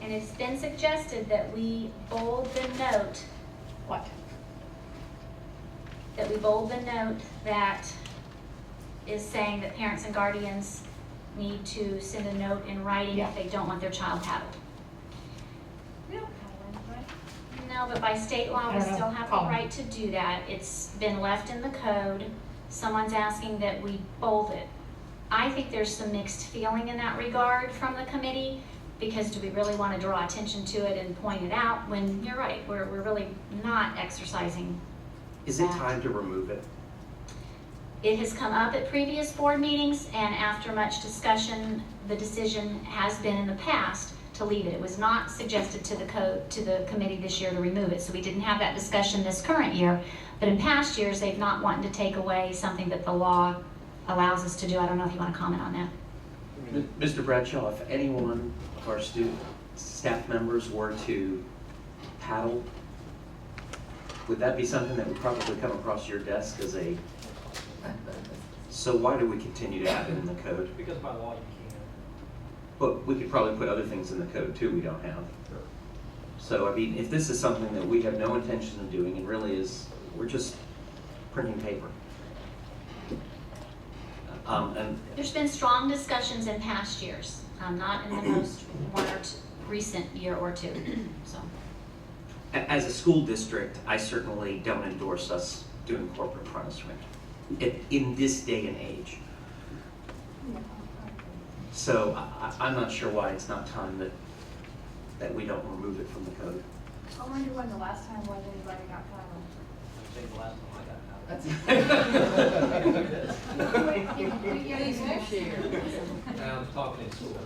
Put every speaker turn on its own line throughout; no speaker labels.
and it's been suggested that we bold the note,
What?
that we bold the note that is saying that parents and guardians need to send a note in writing
Yeah.
if they don't want their child paddled.
We don't have one, right?
No, but by state law,
I
we
don't know.
still have the
Call 'em.
right to do that. It's been left in the code. Someone's asking that we bold it. I think there's some mixed feeling in that regard from the committee, because do we really want to draw attention to it and point it out when, you're right, we're, we're really not exercising.
Is it
That.
time to remove it?
It has come up at previous board meetings, and after much discussion, the decision has been in the past to leave it. It was not suggested to the code, to the committee this year to remove it, so we didn't have that discussion this current year. But in past years, they've not wanted to take away something that the law allows us to do. I don't know if you want to comment on that.
M- Mr. Bradshaw, if any one of our student, staff members were to paddle, would that be something that would probably come across your desk as a, so why do we continue to have it in the code?
Because by law you
But we could probably put other things in the code too we don't have.
can.
So, I mean, if this is something that we have no intention of doing, it really is, we're just printing paper. Um, and
There's been strong discussions in past years, um, not in the most one or two, recent year or two, so.
A- As a school district, I certainly don't endorse us doing corporate punishment in, in this day and age. So I, I- I'm not sure why it's not time that, that we don't remove it from the code.
I wonder when the last time was anybody got caught.
I think the last time I got out.
That's-
I was talking in school.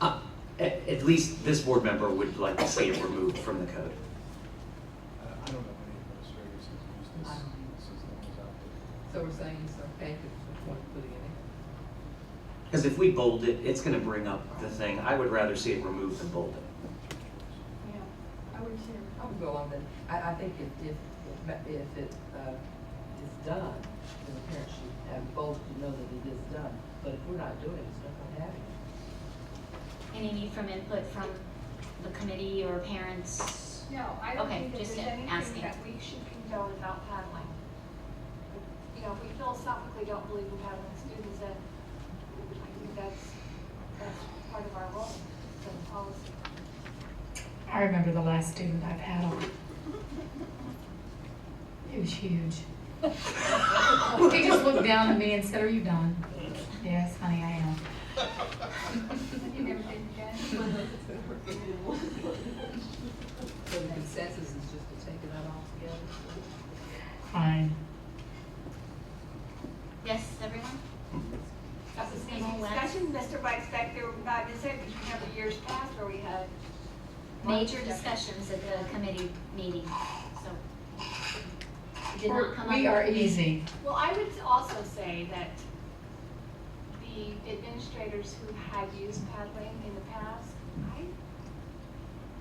Uh, At, at least this board member would like to see it removed from the code.
I Uh, I don't know any administrators who've used this
I don't either.
system that's out there.
So we're saying it's okay to put one foot in
Because if we bold it, it's gonna bring up the thing. I would rather see it removed than bolded.
Yeah, I would too.
it. I would go on then. I, I think if, if, if ma- if it, uh, is done, then the parents should have both to know that it is done. But if we're not doing it, it's not gonna happen.
Any need from input from the committee or parents?
No, I don't
Okay,
think that
just
there's anything
asking.
that we should condone about paddling. You know, we philosophically don't believe in paddling students, and I think that's, that's part of our role, the policy.
I remember the last student I've had on. He was huge. He just looked down at me and said, are you done? Yes, honey, I am.
You never did again?
So the consensus is just to take it out altogether?
Fine.
Yes, everyone?
That's the same
Anyone left?
discussion, Mr. Vice Back there, about this, it, because remember years past where we had.
Major discussions at the committee meeting, so. it Did not come up.
We are easy.
Well, I would also say that the administrators who had used paddling in the past, I,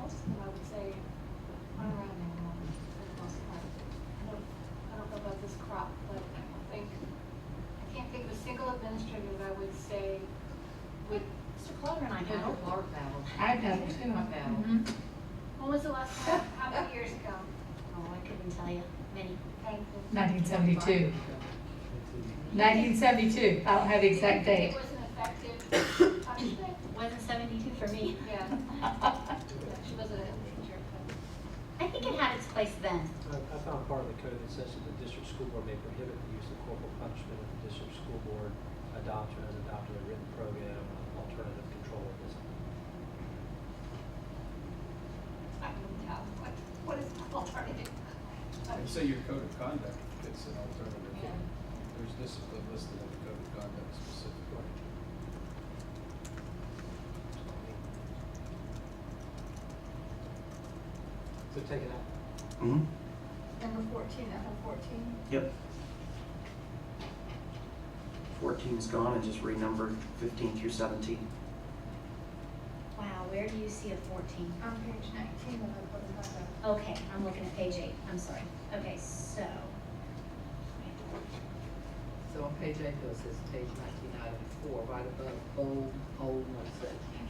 most of them, I would say, aren't around anymore for the most part. I don't, I don't know about this crop, but I don't think, I can't think of a single administrator that I would say would,
Mr. Clover and I
Kendall
paddled.
Clark battle.
I paddle too.
I paddle.
Mhm.
when was the last time, how many years ago?
Oh, I couldn't tell you, many.
Thank you.
1972. 1972. I don't have the exact
It
date.
was an effective punishment,
Wasn't seventy-two for me.
yeah,
I
she wasn't a teacher, but.
I think it had its place then.
I I found part of the code that says that the district school board may prohibit the use of corporal punishment if the district school board adopts or has adopted a written program of alternative control of discipline.
I don't know, what, what is alternative?
And say your code of conduct fits an alternative. There's discipline listed in the code of conduct specifically.
So take it out.
hmm
Number fourteen, that whole fourteen?
Yep. Fourteen's gone and just renumbered fifteen through seventeen.
Wow, where do you see a fourteen?
On page nineteen of the code of conduct.
Okay, I'm looking at page eight, I'm sorry. Okay, so.
Mm-hmm. So on page eight, though, it says page nineteen, item four, right above bold, bold, no such.